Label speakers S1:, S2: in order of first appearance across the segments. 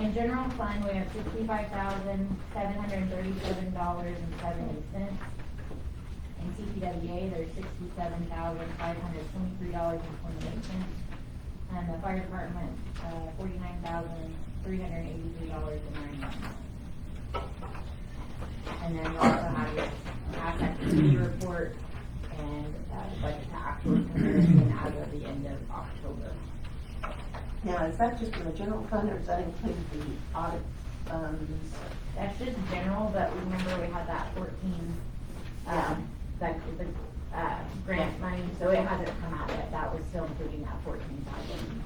S1: In general fund, we have sixty-five thousand, seven hundred and thirty-seven dollars and seventy cents. In CPWA, there's sixty-seven thousand, five hundred twenty-three dollars and twenty-eight cents. And the fire department, uh, forty-nine thousand, three hundred eighty-three dollars and ninety-one cents. And then we also have your asset committee report and, uh, budget to actual comparison as of the end of October.
S2: Now, is that just for the general fund or does that include the audit um, funds?
S1: That's just general, but remember we had that fourteen, um, that, the, uh, grant money, so it hasn't come out yet, that was still including that fourteen thousand.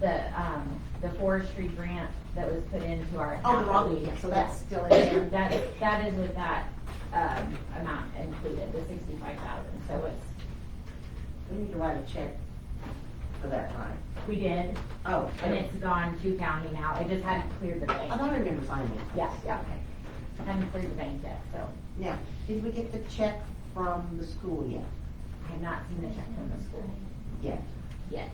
S1: The, um, the forestry grant that was put into our.
S2: Oh, the wrong meeting, so that's still in there.
S1: That, that is with that, um, amount included, the sixty-five thousand, so it's,
S2: We need to write a check for that line.
S1: we did,
S2: Oh, I
S1: and
S2: didn't-
S1: it's gone to county now, it just hadn't cleared the
S2: I
S1: bank.
S2: thought I remember signing it.
S1: Yeah, yeah, hadn't cleared the bank yet, so.
S2: Now, did we get the check from the school yet?
S1: I have not seen the check from the school
S2: Yes.
S1: yet.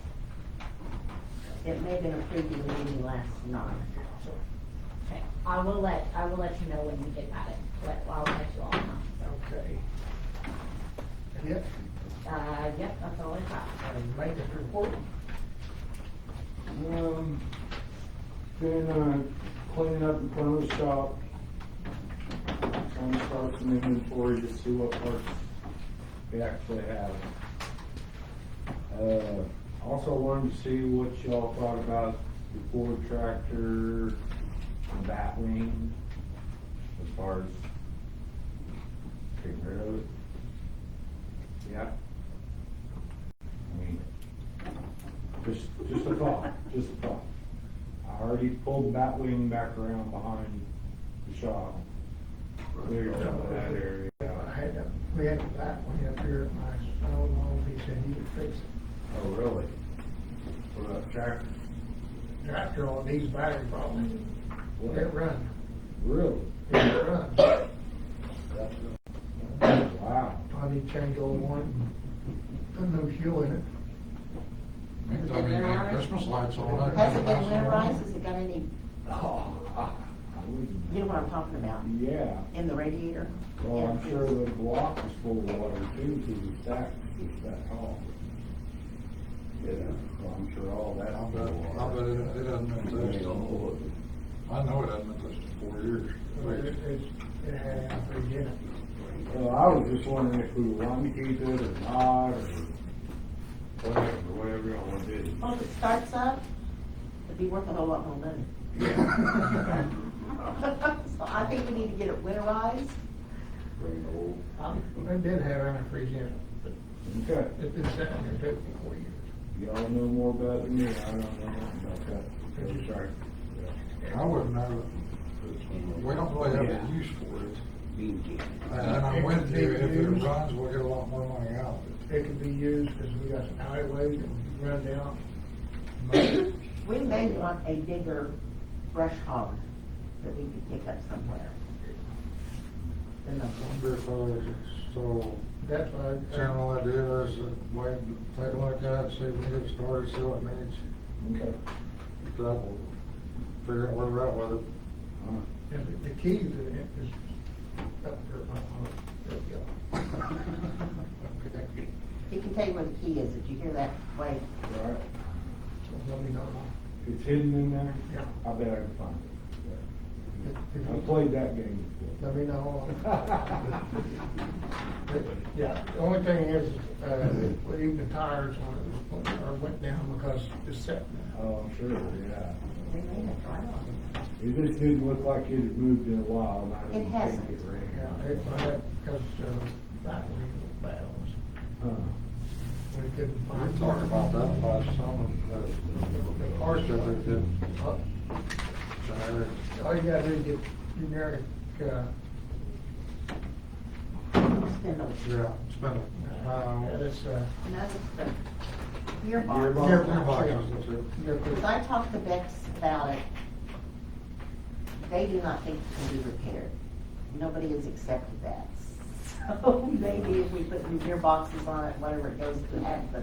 S2: It may have been approved in the meeting last night.
S1: Okay, I will let, I will let you know when we get that, in. Let- I'll let you all know.
S3: Okay. Yep,
S1: Uh, yep, that's all I got.
S3: and maintenance report. Um, been, uh, cleaning up in front of the shop. Trying to start some inventory to see what parts we actually have. Uh, also wanted to see what y'all thought about the Ford tractor, the Batwing, as far as getting rid of it. Yeah. I mean, just, just a thought, just a thought. I already pulled Batwing back around behind the shop. Cleared up that area.
S4: I
S3: Oh,
S4: had a, we had a black one up here at my old home, he said he could fix it.
S3: Oh, really? What about tractor?
S4: Tractor on these battery problems,
S3: What?
S4: it run,
S3: Really?
S4: it run.
S3: Wow.
S4: I need to change old one, put new fuel in it.
S5: Maybe they'll be getting Christmas lights on.
S2: Has it been winterized? Has it got any,
S3: Oh, I I wouldn't.
S2: you know what I'm talking about,
S3: Yeah,
S2: in the radiator?
S3: well,
S2: Yeah.
S3: I'm sure the block is full of water too, because it's that, it's that tall. Yeah, well, I'm sure all that.
S5: I'll bet, I'll bet it, it hasn't been touched in, four- I know it hasn't been touched in four years.
S4: But it, it's, it had amperage in it.
S3: Well, I was just wondering if we want to keep it or not, or whatever, whatever y'all want to do.
S2: Well, if it starts up, it'd be worth a whole lot more money. So I think we need to get it winterized.
S3: Very old.
S4: It did have antifreeze in it, but
S3: Okay,
S4: it's been sitting there fifty four years.
S3: y'all know more about it than me, I don't know nothing about that.
S4: Okay,
S3: sorry.
S5: I wouldn't know, we don't really have a use for it. And I went there, if it runs, we'll get a lot more money out of it.
S4: It could be used, cause we got some alleyways that run down,
S2: We may want a bigger brush hog that we could pick up somewhere. Than the
S5: I
S2: one.
S5: Wonder if, uh, so,
S4: that's why. uh, I-
S5: general idea is, that wait, take a look at it, see if we can get started, see what needs,
S3: Okay.
S5: that will figure out where we're at with it.
S3: All
S4: And the- the key to it is up there, my, there we go.
S2: He can tell you where the key is, did you hear that? Wait,
S3: right. All right.
S4: Let me know.
S3: It's hidden in there?
S4: Yeah.
S3: I bet I can find it.
S4: If- if
S3: I
S4: you-
S3: played that game before.
S4: Let me know. Yeah, the only thing is, uh, well, even the tires on it, or went down because it's set.
S3: Oh, I'm sure, yeah.
S2: they may have tried on
S3: It just didn't look like it had moved in a while, and I
S2: It
S3: didn't think it
S2: hasn't.
S3: ran
S4: Yeah,
S3: out.
S4: it, because, uh, that was battles,
S3: Huh.
S4: we couldn't find.
S5: We talked about that last summer, the, the car show that did,
S4: Uh,
S5: generic,
S4: All you gotta do is get generic, uh,
S2: it. Spindle.
S5: yeah, spindle.
S4: uh,
S5: Uh,
S4: this, uh,
S2: Another spindle. Gearbox.
S5: Gearbox,
S4: Gearbox,
S5: gearbox,
S4: yeah.
S5: that's it.
S4: your.
S2: Because I talked to Bex about it, they do not think it can be repaired. Nobody has accepted that. So maybe if we put new gearboxes on it, whatever it goes to, have the